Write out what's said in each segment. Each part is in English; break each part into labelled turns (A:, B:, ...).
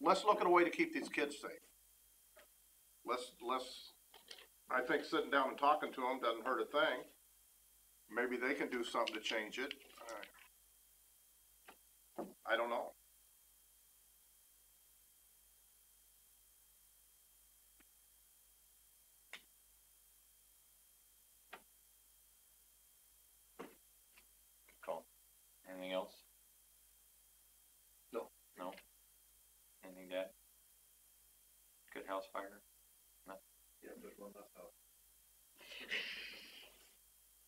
A: let's look at a way to keep these kids safe. Let's, let's, I think sitting down and talking to them doesn't hurt a thing. Maybe they can do something to change it. I- I don't know.
B: Cool. Anything else?
A: No.
B: No? Anything to add? Good house fire,
C: Yeah, there's one left Oh, out,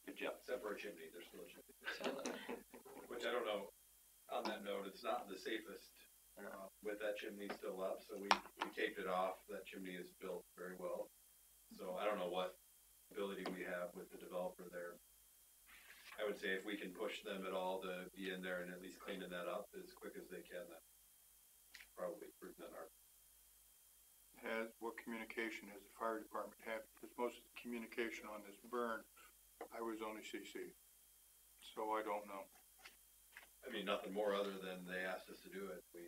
B: good job.
C: except for a chimney, there's still a chimney. Which I don't know, on that note, it's not the safest, uh, with that chimney still up, so we, we taped it off, that chimney is built very well. So I don't know what ability we have with the developer there. I would say if we can push them at all to be in there and at least cleaning that up as quick as they can, that probably prove that our,
D: has, what communication has the fire department had? Because most of the communication on this burn, I was only CC. So I don't know.
C: I mean, nothing more other than they asked us to do it, we,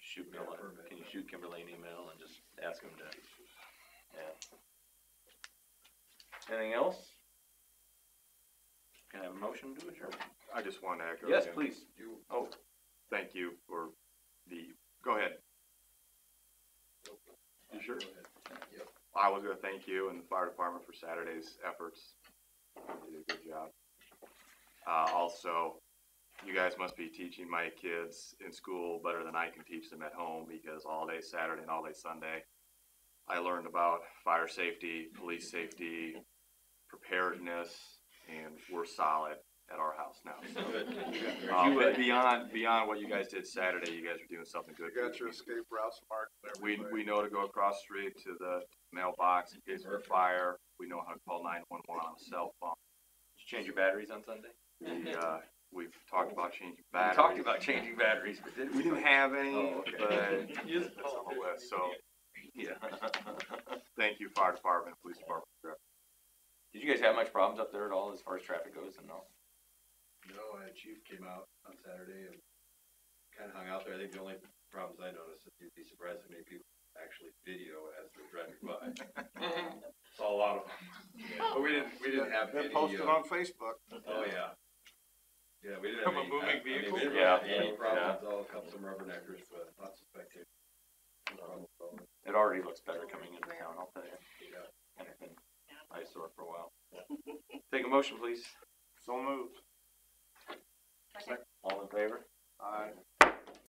B: Shoot
C: We got a
B: Kimberly,
C: permit,
B: can you
C: yeah.
B: shoot Kimberly an email and just ask him to, yeah. Anything else? Can I have a motion to adjourn?
E: I just want to echo.
B: Yes,
E: again,
B: please.
C: you
B: Oh,
E: Thank you for the, go ahead. You sure? I was gonna thank you and the fire department for Saturday's efforts. You did a good job. Uh, also, you guys must be teaching my kids in school better than I can teach them at home because all day Saturday and all day Sunday, I learned about fire safety, police safety, preparedness, and we're solid at our house now. So
C: Oh,
B: You
E: Um,
B: would-
E: beyond, beyond what you guys did Saturday, you guys are doing something good.
A: You
E: for
A: got
E: the
A: your
E: community.
A: escape routes marked. and
E: We,
A: everything.
E: we know to go across the street to the mailbox in case of a fire. We know how to call nine one one on a cell phone.
B: did you change your batteries on Sunday?
E: We, uh, we've talked about changing
B: We talked
E: batteries.
B: about changing batteries, but didn't.
E: We didn't have any,
B: Oh, okay.
E: but it's on the list, so
B: Yeah.
E: thank you, fire department, police department.
B: Did you guys have much problems up there at all as far as traffic goes and all?
C: No, uh, Chief came out on Saturday and kind of hung out there. I think the only problems I noticed is you'd be surprised how many people actually video as they're driving by. Saw a
D: Oh.
C: lot of them. But we didn't, we didn't have
A: They
C: any,
A: posted
C: uh,
A: on Facebook.
C: oh, yeah. Yeah, we didn't have
D: From a
C: any. uh,
D: moving
C: I- I mean,
D: vehicle?
C: We didn't
B: Yeah,
C: have any
B: yeah.
C: problems, all cups and rubberneckers, but lots of spectators. No problem at all.
B: It already looks better coming into town, I'll tell you.
C: Yeah.
B: Kind of been eyesore for a while. Take a motion, please.
A: So moved.
B: All in favor?
A: Aye.